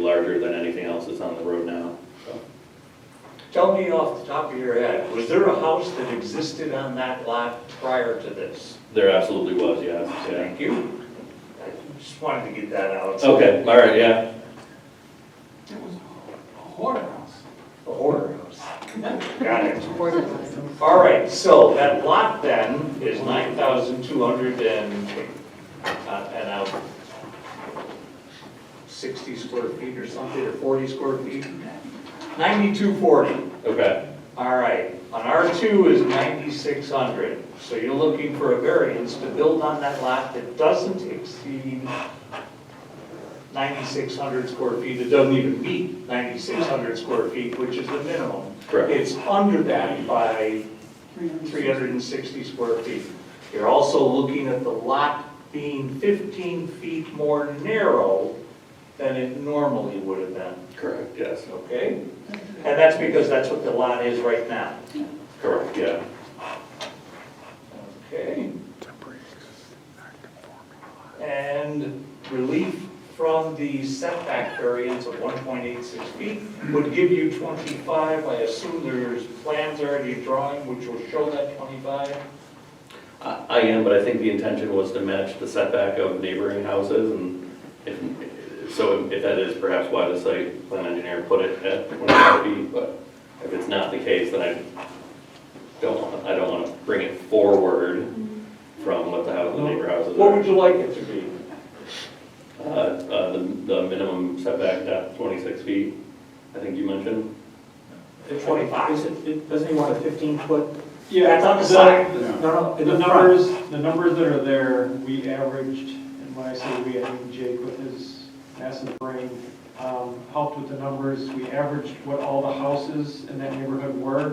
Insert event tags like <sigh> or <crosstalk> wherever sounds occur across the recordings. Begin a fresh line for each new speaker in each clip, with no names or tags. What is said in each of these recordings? larger than anything else that's on the road now, so.
Tell me off the top of your head, was there a house that existed on that lot prior to this?
There absolutely was, yes, yeah.
Thank you. I Just wanted to get that out.
Okay, all right, yeah,
It was a hoarhouse.
The horror house. Got it. All right, so that lot then is 9,200 and, uh, and out 60 square feet or something, or 40 square feet? 9240.
okay,
All right, on R2 is 9,600, so you're looking for a variance to build on that lot that doesn't exceed 9,600 square feet, it doesn't even meet 9,600 square feet, which is the minimum.
Correct.
It's under that by 360 square feet. You're also looking at the lot being 15 feet more narrow than it normally would have been.
correct, yes,
Okay, and that's because that's what the lot is right now.
correct, yeah.
Okay. And relief from the setback variance of 1.86 feet would give you 25. I assume there's plans already drawing which will show that 25.
I I am, but I think the intention was to match the setback of neighboring houses, and if, so if that is perhaps why the site plan engineer put it at 25 feet, but if it's not the case, then I don't want, I don't want to bring it forward from what the house, the neighbor houses
What
are.
would you like it to be?
Uh, uh, The the minimum setback, that 26 feet, I think you mentioned.
Is it- it- Doesn't he want a 15-foot?
Yeah,
That's on the side.
No, no, in
The
the front.
numbers, the numbers that are there, we averaged, and when I say we, I mean Jake with his massive brain, um, helped with the numbers. We averaged what all the houses in that neighborhood were,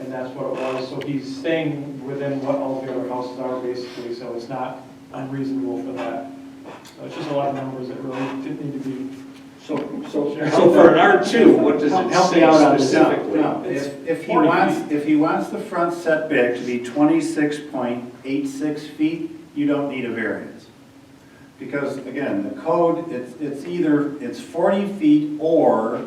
and that's what it was. So he's staying within what all the other houses are basically, so it's not unreasonable for that. So it's just a lot of numbers that really didn't need to be.
So, so.
So for an R2, what does
Help-
it
help me
say
out on this.
specifically?
No, if, if he
40
wants, if he wants the front setback to be twenty-six point eight-six feet, you don't need a variance. Because again, the code, it's, it's either, it's forty feet or,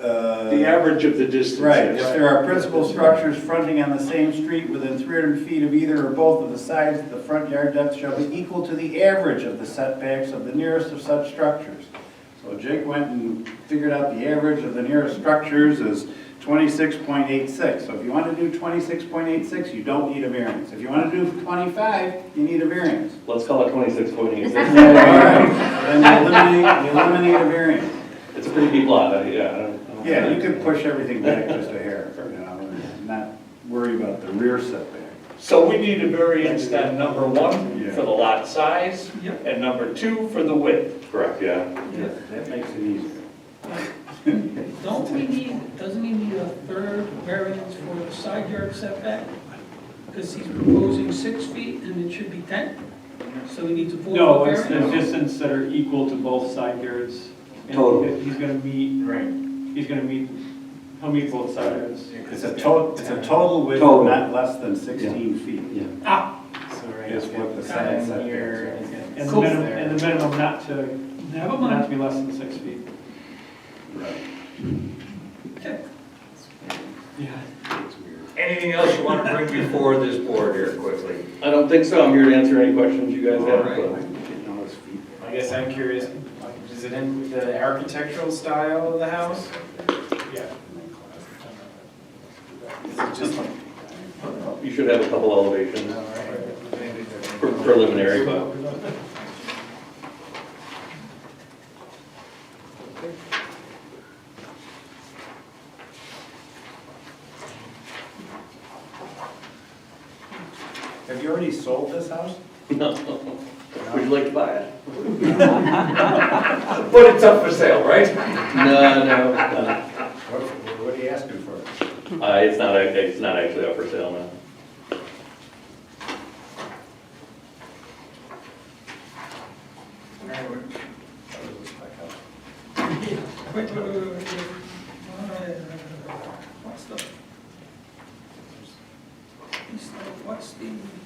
uh.
The average of the distance.
Right, if there are principal structures fronting on the same street within three hundred feet of either or both of the sides, the front yard depth shall be equal to the average of the setbacks of the nearest of such structures. So Jake went and figured out the average of the nearest structures is twenty-six point eight-six. So if you want to do twenty-six point eight-six, you don't need a variance. If you want to do twenty-five, you need a variance.
Let's call it 26.8.
All <laughs> right, Then you eliminate, you eliminate a variance.
It's a pretty deep lot, I- yeah. I don't- I don't-
Yeah, you could push everything back just a hair, you know, and not worry about the rear setback.
So we need a variance then, number one,
Yeah.
for the lot size,
Yep.
and number two, for the width.
Correct, yeah.
That makes it easier.
Don't we need, doesn't he need a third variance for the side yard setback? Because he's proposing six feet and it should be 10, so he needs a
No,
four-foot
it's the
variance?
distance that are equal to both side yards. and
Total.
He's gonna meet,
Right.
he's gonna meet, he'll meet both side yards.
It's a total, it's a total width of not less than 16 feet
Ah,
So right
is what the side
down
setback
here
is.
is gonna
And the
Cool.
minimum,
there.
and the minimum not to,
never
not
mind.
to be less than six feet.
Okay.
Yeah.
Anything else you want to bring before this board here quickly?
I don't think so. I'm here to answer any questions you guys have.
All
but-
I guess I'm curious, is it in the architectural style of the house? Yeah. Is it just like?
You should have a couple elevations pre- preliminary, but
Have you already sold this house?
no. Would you like to buy it?
But it's up for sale, right?
No, no, no.
What, what are you asking for?
Uh, it's not, act- it's not actually up for sale now.
Wait, wait, wait, wait, wait. What's the? What's the,